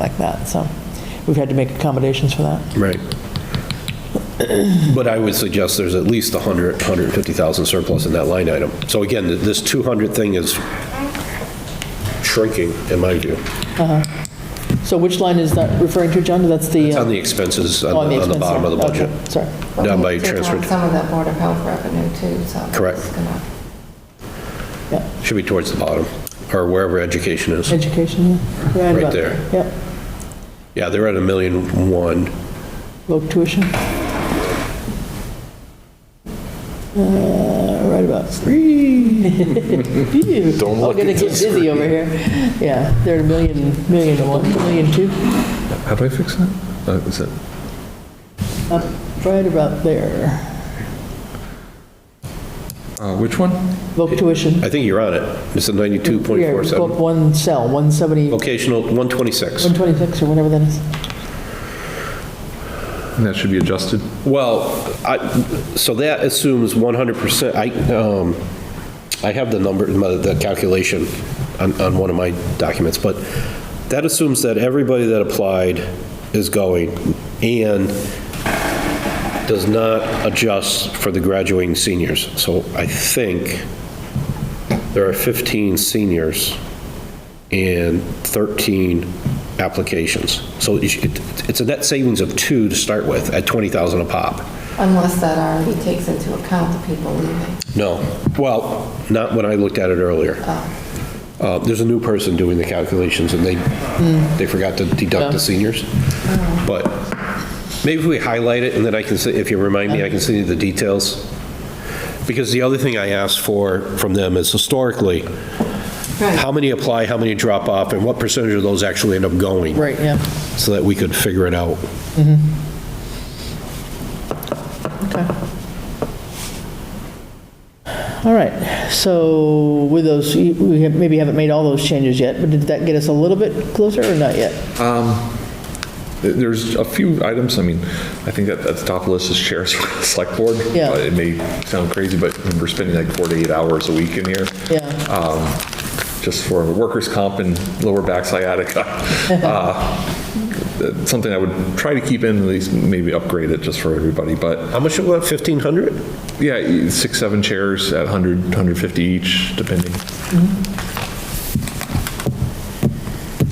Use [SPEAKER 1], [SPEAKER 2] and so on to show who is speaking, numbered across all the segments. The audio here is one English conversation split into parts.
[SPEAKER 1] like that, so we've had to make accommodations for that.
[SPEAKER 2] Right. But I would suggest there's at least 100, 150,000 surplus in that line item. So again, th- this 200 thing is shrinking, in my view,
[SPEAKER 1] So which line is that referring to, John? That's the... uh,
[SPEAKER 2] on the expenses,
[SPEAKER 1] oh,
[SPEAKER 2] on the on the
[SPEAKER 1] expense
[SPEAKER 2] bottom of the
[SPEAKER 1] line. Okay,
[SPEAKER 2] budget,
[SPEAKER 1] Sorry.
[SPEAKER 2] down by
[SPEAKER 3] Take out
[SPEAKER 2] transfer,
[SPEAKER 3] Some of that Board of Health revenue too, so. it's
[SPEAKER 2] Correct.
[SPEAKER 3] gonna-
[SPEAKER 2] should be towards the bottom, or wherever education is.
[SPEAKER 1] Education, yeah. Yeah, I'd
[SPEAKER 2] Right
[SPEAKER 1] love-
[SPEAKER 2] there.
[SPEAKER 1] Yep,
[SPEAKER 2] Yeah, they're at a million one.
[SPEAKER 1] low tuition. Uh, Right about three. Don't look at this. I'm gonna get dizzy over here. Yeah, they're at a million, million and one, million two,
[SPEAKER 4] How do I fix that? Oh, is it?
[SPEAKER 1] right about there.
[SPEAKER 4] Uh, which one?
[SPEAKER 1] Voc tuition.
[SPEAKER 2] I think you're on it. It's a
[SPEAKER 1] Yeah, go up
[SPEAKER 2] 92.47.
[SPEAKER 1] One cell, 170,
[SPEAKER 2] Vocational, 126.
[SPEAKER 1] 126 or whatever that is.
[SPEAKER 4] And that should be adjusted.
[SPEAKER 2] Well, I, so that assumes 100%, I, um, I have the number, the calculation on, on one of my documents, but that assumes that everybody that applied is going and does not adjust for the graduating seniors. So I think there are 15 seniors and 13 applications. So you should- it's a net savings of two to start with at 20,000 a pop.
[SPEAKER 3] Unless that already takes into account the people leaving.
[SPEAKER 2] No, well, not when I looked at it earlier. Uh, There's a new person doing the calculations and they, they forgot to deduct the seniors. But maybe if we highlight it and then I can say, if you remind me, I can send you the details. Because the other thing I asked for from them is historically, how
[SPEAKER 3] Right,
[SPEAKER 2] many apply, how many drop off, and what percentage of those actually end up going?
[SPEAKER 1] Right, yeah.
[SPEAKER 2] so that we could figure it out.
[SPEAKER 1] All right, so with those, we have- maybe haven't made all those changes yet, but did that get us a little bit closer or not yet?
[SPEAKER 4] There- There's a few items, I mean, I think that, at the top of the list is chairs for the select board.
[SPEAKER 1] Yeah.
[SPEAKER 4] Uh, It may sound crazy, but we're spending like four to eight hours a week in here.
[SPEAKER 1] Yeah.
[SPEAKER 4] Um, Just for workers' comp and lower back sciatica. Uh, that's Something I would try to keep in, at least maybe upgrade it just for everybody, but
[SPEAKER 2] How much it was, 1,500?
[SPEAKER 4] yeah, six, seven chairs at 100, 150 each, depending.
[SPEAKER 2] Mm-hmm.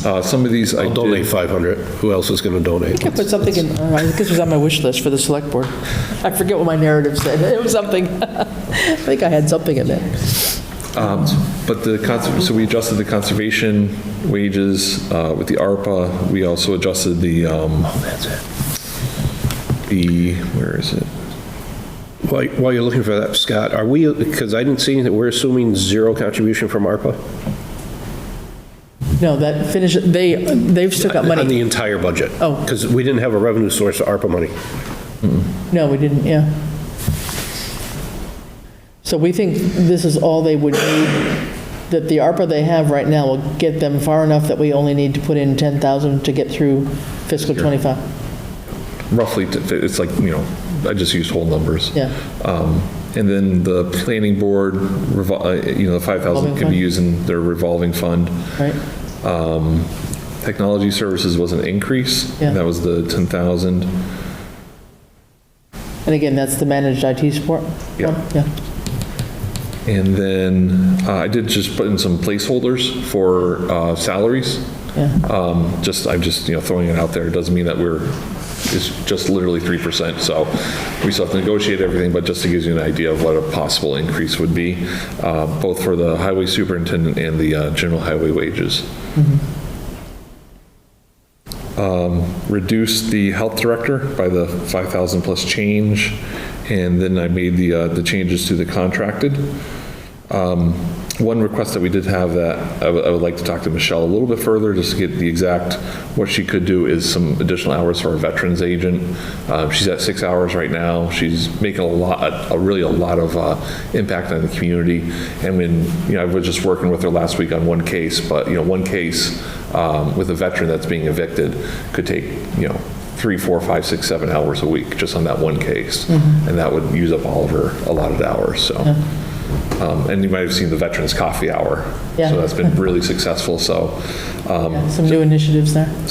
[SPEAKER 4] Uh, Some of these I
[SPEAKER 2] I'll
[SPEAKER 4] did.
[SPEAKER 2] donate 500. Who else is going to donate?
[SPEAKER 1] I put something in, uh, I think this was on my wish list for the select board. I forget what my narrative said, it was something, I think I had something in there.
[SPEAKER 4] Um, But the, cons- so we adjusted the conservation wages uh, with the ARPA. We also adjusted the, um, the, where is it?
[SPEAKER 2] While while you're looking for that, Scott, are we, because I didn't see anything, we're assuming zero contribution from ARPA?
[SPEAKER 1] No, that finish, they, they've still got
[SPEAKER 2] On the
[SPEAKER 1] money.
[SPEAKER 2] entire budget?
[SPEAKER 1] Oh.
[SPEAKER 2] Because we didn't have a revenue source to ARPA money.
[SPEAKER 1] No, we didn't, yeah. So we think this is all they would need, that the ARPA they have right now will get them far enough that we only need to put in 10,000 to get through fiscal '25.
[SPEAKER 4] Roughly, to fit- it's like, you know, I just used whole numbers.
[SPEAKER 1] Yeah.
[SPEAKER 4] Um, And then the planning board, revol- uh, you know, the 5,000 can
[SPEAKER 1] Revolving fund.
[SPEAKER 4] be used in their revolving fund.
[SPEAKER 1] Right,
[SPEAKER 4] Um, Technology services was an increase.
[SPEAKER 1] Yeah.
[SPEAKER 4] That was the 10,000.
[SPEAKER 1] and again, that's the managed IT support?
[SPEAKER 4] Yeah. And then uh, I did just put in some placeholders for uh, salaries.
[SPEAKER 1] Yeah.
[SPEAKER 4] Um, Just, I'm just, you know, throwing it out there. It doesn't mean that we're, it's just literally 3%. So we still have to negotiate everything, but just to give you an idea of what a possible increase would be, uh, both for the highway superintendent and the uh, general highway wages. Um, reduced the health director by the 5,000 plus change, and then I made the, uh, the changes to the contracted. Um, One request that we did have that, I would, I would like to talk to Michelle a little bit further, just to get the exact, what she could do is some additional hours for our veterans agent. Uh, She's at six hours right now, she's making a lot, a really a lot of uh, impact on the community. And when, you know, I was just working with her last week on one case, but, you know, one case um, with a veteran that's being evicted could take, you know, three, four, five, six, seven hours a week, just on that one case. And that would use up all of her allotted hours, so. Um, And you might have seen the Veterans Coffee Hour.
[SPEAKER 1] Yeah.
[SPEAKER 4] So that's been really successful, so. um,
[SPEAKER 1] Some new initiatives there.